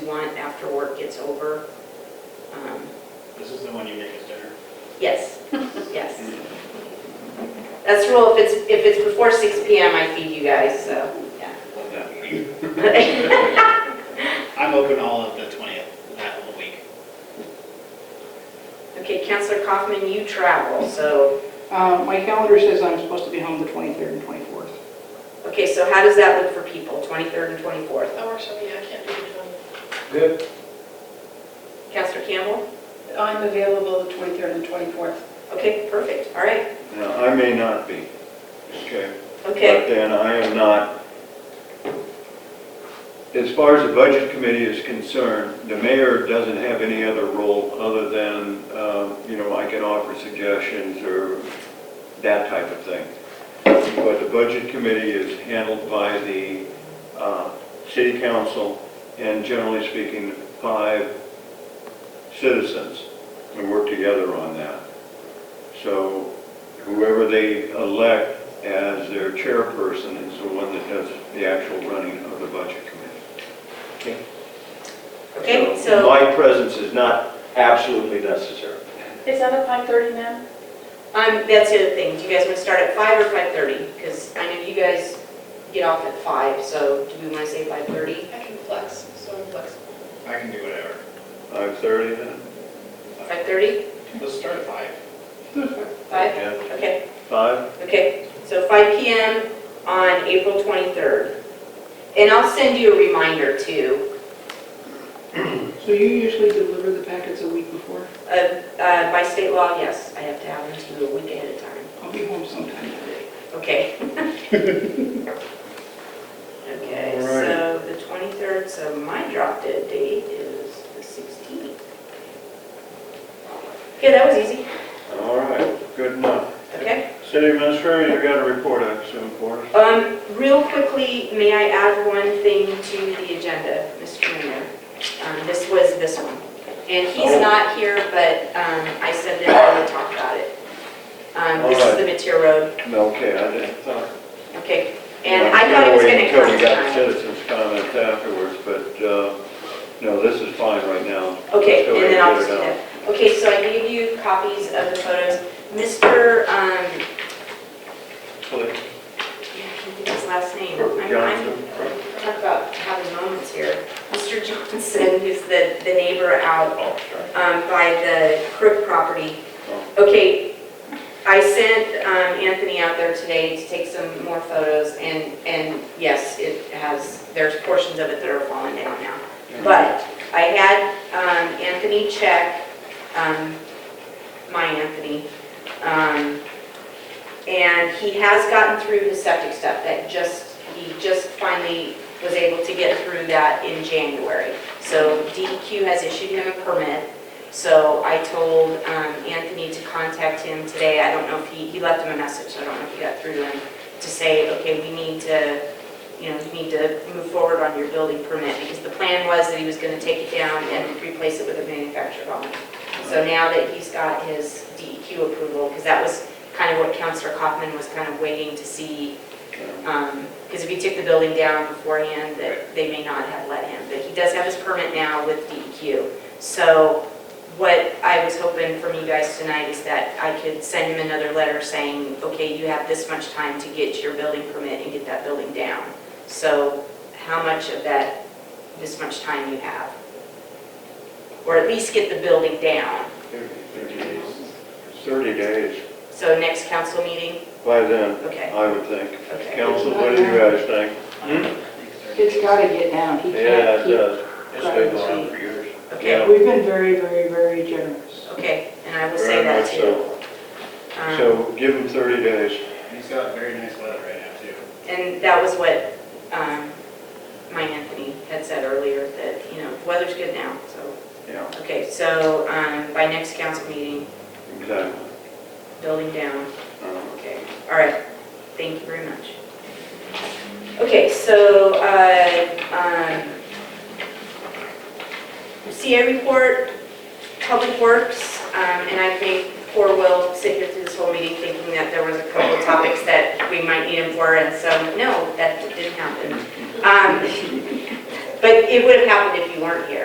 This is the one you make us dinner? Um, Yes, yes. That's the rule, if it's, if it's before 6 PM, I feed you guys, so, yeah. Love that week. I'm open all of the 20th, that whole week. Okay, Counselor Kaufman, you travel, so, Uh, My calendar says I'm supposed to be home the 23rd and 24th. okay, so how does that look for people, 23rd and 24th? That works for me, I can't do the Good. Counselor Campbell? 20th. I'm available the 23rd and 24th. Okay, perfect, all right, Now, I may not be, okay? okay. But then I am not, as far as the budget committee is concerned, the mayor doesn't have any other role other than, um, you know, I can offer suggestions or that type of thing. But the budget committee is handled by the uh, city council and generally speaking, five citizens. And work together on that. So whoever they elect as their chairperson is the one that does the actual running of the budget committee. Okay, so, My presence is not absolutely necessary. Is that at 5:30 now? um, that's the other thing, do you guys want to start at 5 or 5:30? Because I know you guys get off at 5, so do we want to say 5:30? I can flex, so I'm flexible. I can do whatever. 5:30 then? 5:30? Let's start at 5. 5? Yeah. Okay. 5? Okay, so 5 PM on April 23rd. And I'll send you a reminder too, So you usually deliver the packets a week before? Uh, uh, by state law, yes, I have to have them to you a week ahead of time. I'll be home sometime today. Okay. Okay, so the 23rd, so my drop dead date is the 16th. Okay, that was easy, All right, good enough. okay? City Administrator, you got a report, I assume, for us? Um, real quickly, may I add one thing to the agenda, Mr. Mayor? Um, this was this one. And he's Oh. not here, but, um, I said that I would talk about it. Um, this is the Mateer Road, No, okay, I didn't thought. okay? And I thought it was gonna Until come we got tonight. citizens' comments afterwards, but, uh, no, this is fine right now. Okay, Go and then ahead I'll and just get do it that. Okay, so I gave you copies of the photos. Mr., um, yeah, I can't think of his last name. I'm- I'm- Johnson? Talk about having moments here. Mr. Johnson, who's the, the neighbor out Oh, sorry. um, by the Crook property. Oh. Okay, I sent um, Anthony out there today to take some more photos, and, and yes, it has, there's portions of it that are falling down now. But I had um, Anthony check, um, my Anthony, um, and he has gotten through his septic stuff, that just, he just finally was able to get through that in January. So DEQ has issued him a permit, so I told um, Anthony to contact him today. I don't know if he, he left him a message, so I don't know if he got through to him, to say, okay, we need to, you know, you need to move forward on your building permit, because the plan was that he was gonna take it down and replace it with a manufactured home. So now that he's got his DEQ approval, because that was kind of what Counselor Kaufman was kind of waiting to see, because Um, if he took the building down beforehand, that they may not have let him. But he does have his permit now with DEQ. So what I was hoping from you guys tonight is that I could send him another letter saying, okay, you have this much time to get your building permit and get that building down. So how much of that, this much time you have? Or at least get the building down. 30 days. 30 days, So next council meeting, by then, okay, I would think. okay. Council, what do you guys think? Hmm? It's got to get down. He Yeah, can't it keep. does. It's been going on for years. Okay, We've been very, very, very generous. okay, and I will Very say that much too. Yeah. Um, So give them 30 days. He's got a very nice weather right now, too. And that was what um, my Anthony had said earlier, that, you know, weather's good now, so, Yeah, okay, so um, by next council meeting, exactly. building down, Uh, okay, all right, thank you very much. Okay, so, uh, um, CA report, Public Works, um, and I think poor Will sit here through this whole meeting thinking that there was a couple of topics that we might need him for, and so, no, that didn't happen. Um, But it would have happened if you weren't here.